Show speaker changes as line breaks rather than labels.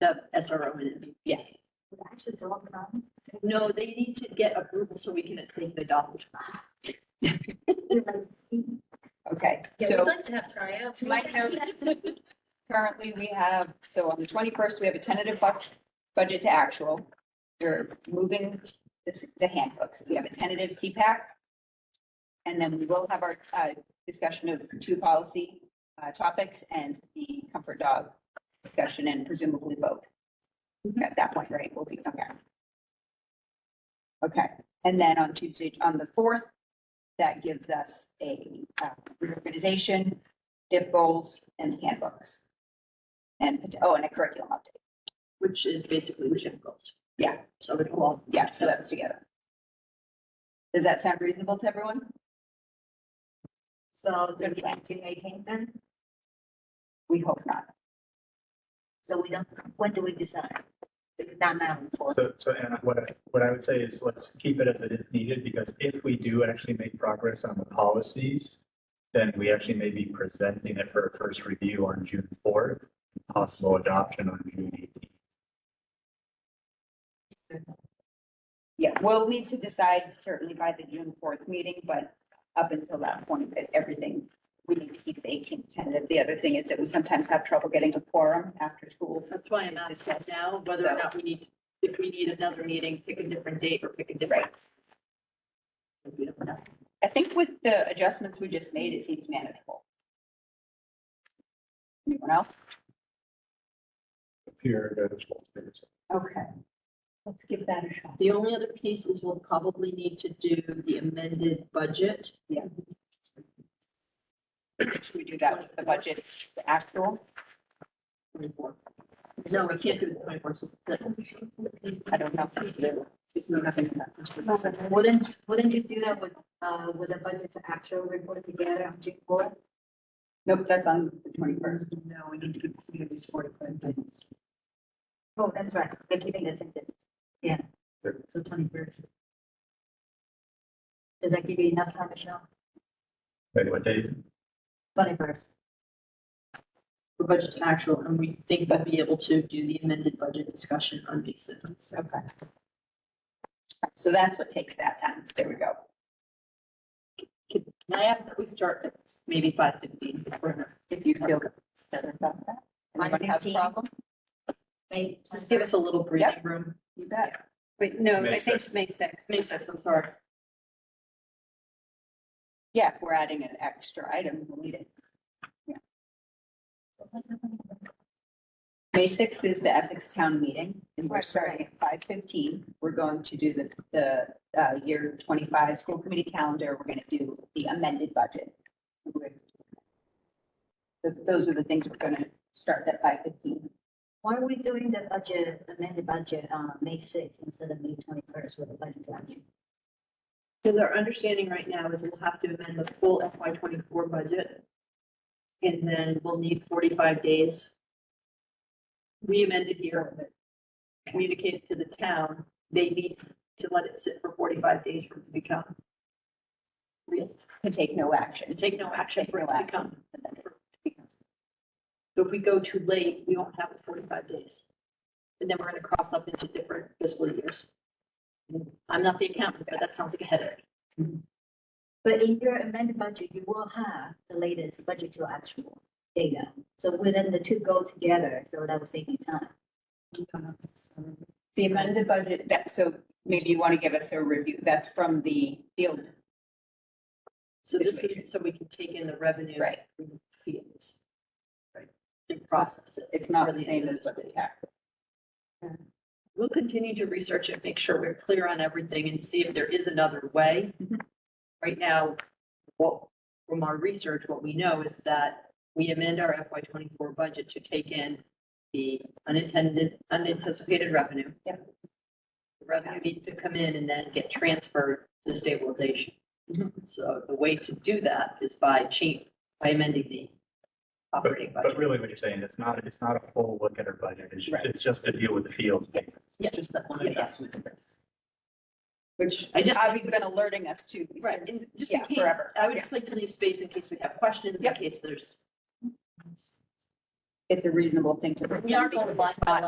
the SRO in it.
Yeah.
No, they need to get approval so we can take the dog.
Okay,
Yeah, we'd
so
like to have tryouts.
to my notes, currently we have, so on the twenty-first, we have a tentative budget, budget to actual. We're moving this, the handbooks. We have a tentative CPAC. And then we will have our, uh, discussion of two policy, uh, topics and the comfort dog discussion and presumably vote. At that point, right, we'll be, okay. Okay, and then on Tuesday, on the fourth, that gives us a, uh, reorganization, DIP goals and handbooks. And, oh, and a curriculum update.
Which is basically the gym goals.
Yeah.
So it all.
Yeah, so that's together. Does that sound reasonable to everyone?
So
Good
the
plan.
twenty eighteen then,
We hope not.
so we don't, when do we decide? It's Not now, before.
So, so Anna, what, I- what I would say is let's keep it as it is needed, because if we do actually make progress on the policies, then we actually may be presenting it for a first review on June fourth, possible adoption on June eighteenth.
Yeah, we'll need to decide certainly by the June fourth meeting, but up until that point, that everything, we need to keep the eighteenth tentative. The other thing is that we sometimes have trouble getting a quorum after school.
That's why I'm asking
Discuss.
now whether
So-
or not we need, if we need another meeting, pick a different date or pick a different. We don't know.
I think with the adjustments we just made, it seems manageable. Anyone else? Okay, let's give that a shot.
The only other piece is we'll probably need to do the amended budget.
Yeah. Should we do that with the budget, the actual?
24. No, we can't do the twenty-four.
I don't know.
Wouldn't, wouldn't you do that with, uh, with a budget to actual report together on June fourth?
Nope, that's on the twenty-first.
No, we need to do communities forty-five days.
Oh, that's right, they're keeping the sentence. Yeah.
So twenty-first.
Does that give you enough time, Michelle?
Wait, what date?
Twenty first.
For budget to actual, and we think we'll be able to do the amended budget discussion on May seventh. So
Okay. So that's what takes that time. There we go.
can can I ask that we start at maybe five fifteen?
If you feel better about that. Anybody have a
1:15.
problem?
May.
Just give us a little breathing room.
You bet.
Wait, no,
May
Um, I think
sixth.
May sixth.
May sixth, I'm sorry.
Yeah, if we're adding an extra item, we'll need it. Yeah. May sixth is the Essex Town Meeting, and we're
Right,
starting at five fifteen. We're going to do the, the, uh, year twenty-five school committee calendar. We're gonna do the amended budget. We're- Th- Those are the things we're gonna start at five fifteen.
Why are we doing the budget, amended budget on May sixth instead of May twenty first with the budget to action?
Because our understanding right now is we'll have to amend the full FY twenty-four budget. And then we'll need forty-five days. We amended here, communicated to the town, they need to let it sit for forty-five days for it to become,
To take no
to
action.
take no action for it to become.
Right,
So if we go too late, we won't have the forty-five days. And then we're gonna cross up into different fiscal years. I'm not the accountant, but that sounds like a headache.
But in your amended budget, you will have the latest budget to actual data. So within the two go together, so that will save you time.
The amended budget, that, so maybe you want to give us a review. That's from the field,
So this
Situation.
is so we can take in the revenue.
right?
in fields. Right. And process it.
It's not the
Really
same
it
as
is.
what we have.
We'll continue to research it, make sure we're clear on everything and see if there is another way.
Mhm.
Right now, what, from our research, what we know is that we amend our FY twenty-four budget to take in the unintended, unanticipated revenue.
Yep.
The Revenue needs to come in and then get transferred to stabilization. So the way to do that is by change, by amending the
But,
operating budget.
but really what you're saying, it's not, it's not a full look at our budget. It's,
Right.
it's just to deal with the fields.
Yeah. Yeah, just that one
Yeah.
adjustment.
Which
I just-
Avi's been alerting us to.
Right,
since-
and just in
yeah,
case,
Forever.
I would
Yeah.
just like to leave space in case we have questions, in
Yep.
case there's.
It's a reasonable thing to.
We aren't going
because
blind
it's
by
not